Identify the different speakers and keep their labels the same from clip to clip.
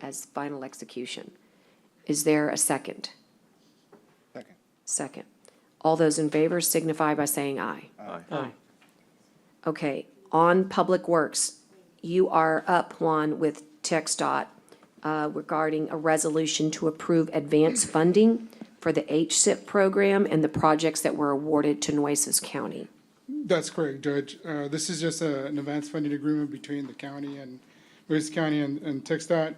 Speaker 1: as final execution. Is there a second?
Speaker 2: Second.
Speaker 1: Second. All those in favor signify by saying aye. Aye. Okay, on Public Works, you are up, Juan, with Tech dot uh, regarding a resolution to approve advance funding for the HSIP program and the projects that were awarded to Nueces County.
Speaker 2: That's correct, Judge. Uh, This is just a- an advanced funding agreement between the county and, Lewis County and and TXDOT.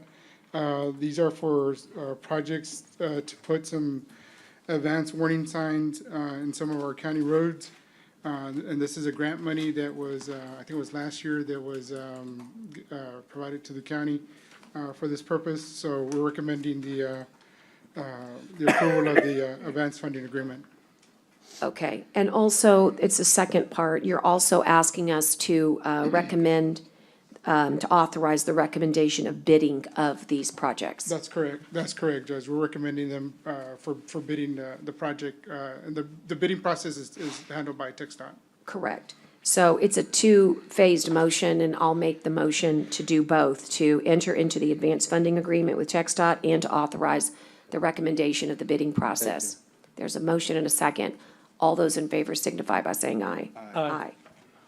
Speaker 2: Uh, These are for uh, projects uh, to put some advanced warning signs uh, in some of our county roads. Uh, And this is a grant money that was, uh, I think it was last year, that was um, g- uh, provided to the county uh, for this purpose. So we're recommending the, uh, uh, the approval of the uh, advanced funding agreement.
Speaker 1: Okay, and also, it's the second part, you're also asking us to uh, recommend, um, to authorize the recommendation of bidding of these projects.
Speaker 2: That's correct, that's correct, Judge. We're recommending them uh, for for bidding uh, the project, uh, and the the bidding process is is handled by TXDOT.
Speaker 1: Correct. So it's a two-phased motion, and I'll make the motion to do both, to enter into the advanced funding agreement with TxDOT and to authorize the recommendation of the bidding process. There's a motion and a second. All those in favor signify by saying aye. Aye.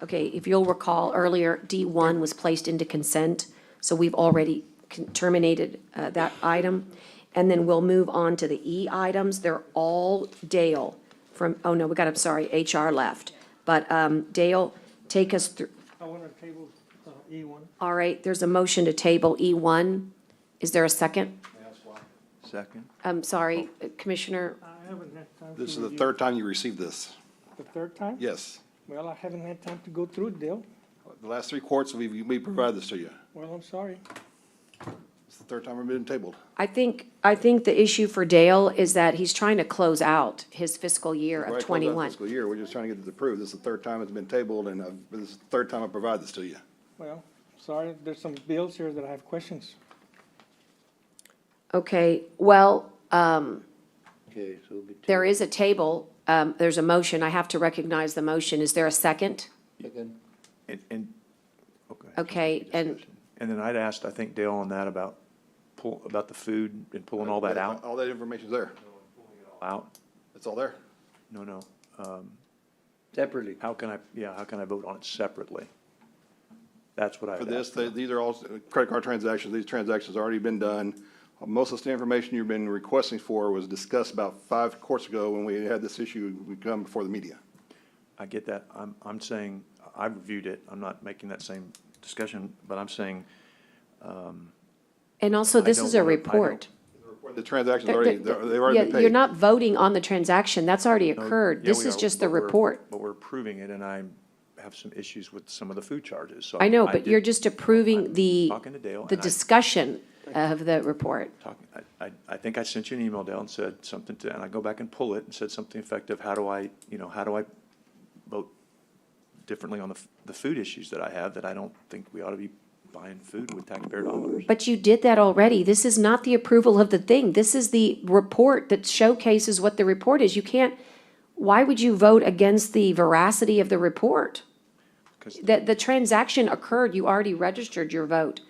Speaker 1: Okay, if you'll recall, earlier, D1 was placed into consent, so we've already con- terminated uh, that item. And then we'll move on to the E items. They're all Dale from, oh no, we got, I'm sorry, HR left. But um, Dale, take us through,
Speaker 3: I want to table uh, E1.
Speaker 1: all right, there's a motion to table E1. Is there a second?
Speaker 4: Second.
Speaker 1: I'm sorry, Commissioner,
Speaker 3: I haven't had time to.
Speaker 5: This is the
Speaker 3: review.
Speaker 5: third time you received this.
Speaker 3: The third time?
Speaker 5: Yes.
Speaker 3: Well, I haven't had time to go through it, Dale.
Speaker 5: The last three courts, we, we provided this to you.
Speaker 3: Well, I'm sorry.
Speaker 5: It's the third time we've been tabled.
Speaker 1: I think, I think the issue for Dale is that he's trying to close out his fiscal year
Speaker 5: Right,
Speaker 1: of
Speaker 5: close out
Speaker 1: 21.
Speaker 5: Fiscal year, we're just trying to get this approved. This is the third time it's been tabled, and uh, this is the third time I provide this to you.
Speaker 3: Well, sorry, there's some bills here that I have questions.
Speaker 1: Okay, well,
Speaker 4: Okay, so it'll be
Speaker 1: There is a table, um, there's a motion, I have to recognize the motion, is there a second?
Speaker 4: second. And, and, okay.
Speaker 1: Okay, and,
Speaker 4: And then I'd asked, I think Dale on that about pull, about the food and pulling all that out,
Speaker 5: All that information's there.
Speaker 4: out,
Speaker 5: It's all there.
Speaker 4: no, no.
Speaker 6: Separately.
Speaker 4: How can I, yeah, how can I vote on it separately? That's what I
Speaker 5: For
Speaker 4: would
Speaker 5: this,
Speaker 4: ask.
Speaker 5: they- these are all uh, credit card transactions. These transactions have already been done. Most of the information you've been requesting for was discussed about five courts ago when we had this issue, we come before the media.
Speaker 4: I get that. I'm, I'm saying, I reviewed it. I'm not making that same discussion, but I'm saying.
Speaker 1: and also,
Speaker 4: I
Speaker 1: this
Speaker 4: don't
Speaker 1: is a
Speaker 4: wanna- I
Speaker 1: report.
Speaker 5: The transaction's already, they've already
Speaker 1: Yeah,
Speaker 5: been paid.
Speaker 1: You're not voting on the transaction, that's already
Speaker 4: no,
Speaker 1: occurred,
Speaker 4: yeah,
Speaker 1: this
Speaker 4: we
Speaker 1: is
Speaker 4: are,
Speaker 1: just the
Speaker 4: but we're-
Speaker 1: report.
Speaker 4: But we're approving it, and I have some issues with some of the food charges, so.
Speaker 1: I know, but you're
Speaker 4: did-
Speaker 1: just approving the,
Speaker 4: talking to Dale,
Speaker 1: the
Speaker 4: and I-
Speaker 1: discussion of the report.
Speaker 4: talking, I, I, I think I sent you an email, Dale, and said something to, and I go back and pull it and said something effective, how do I, you know, how do I vote differently on the, f- the food issues that I have that I don't think we ought to be buying food with taxpayer dollars?
Speaker 1: But you did that already, this is not the approval of the thing, this is the report that showcases what the report is, you can't, why would you vote against the veracity of the report?
Speaker 4: 'Cause-
Speaker 1: the, the transaction occurred, you already registered your vote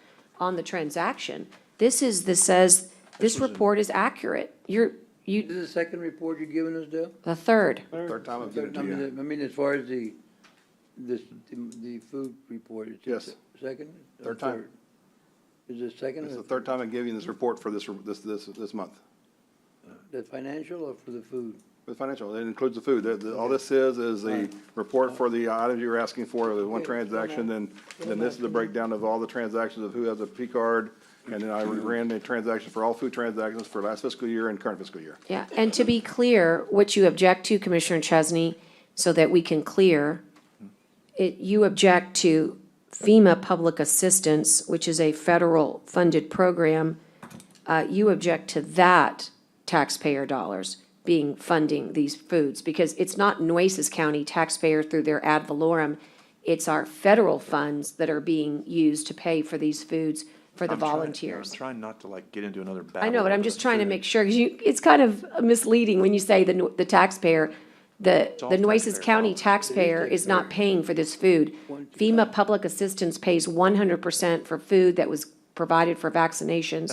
Speaker 1: on the transaction. This is, this says, this report is accurate. You're,
Speaker 6: This
Speaker 1: you,
Speaker 6: is the second report you're giving us, Dale?
Speaker 1: the third.
Speaker 5: Third time I've given it
Speaker 6: I
Speaker 5: to
Speaker 6: mean,
Speaker 5: you.
Speaker 6: I mean, as far as the, this, the- the food report, it's. the
Speaker 5: Yes.
Speaker 6: Second? or
Speaker 5: Third time.
Speaker 6: Is it second?
Speaker 5: It's
Speaker 6: or
Speaker 5: the third time I'm giving you this report for this, this, this, this month.
Speaker 6: The financial or for the food?
Speaker 5: The financial, it includes the food. The- the- All this is, is the report for the items you were asking for, the one
Speaker 6: Okay, so
Speaker 5: transaction,
Speaker 6: now-
Speaker 5: then, then this is the breakdown of all the transactions of who has a P card. And then I ran the transaction for all food transactions for last fiscal year and current fiscal year.
Speaker 1: Yeah, and to be clear, what you object to, Commissioner Chesney, so that we can clear, it, you object to FEMA Public Assistance, which is a federal-funded program. Uh, you object to that taxpayer dollars being funding these foods, because it's not Nueces County taxpayer through their ad valorem. It's our federal funds that are being used to pay for these foods for the
Speaker 4: I'm trying- yeah,
Speaker 1: volunteers.
Speaker 4: I'm trying not to like get into another battle.
Speaker 1: I know, but I'm
Speaker 4: over
Speaker 1: just
Speaker 4: the
Speaker 1: trying to
Speaker 4: food.
Speaker 1: make sure, because you, it's kind of misleading when you say the, nu- the taxpayer, the,
Speaker 4: all
Speaker 1: the Nueces
Speaker 4: taxpayer
Speaker 1: County
Speaker 4: dollars.
Speaker 1: taxpayer is not paying for this food. FEMA Public Assistance pays one hundred percent for food that was provided for vaccinations.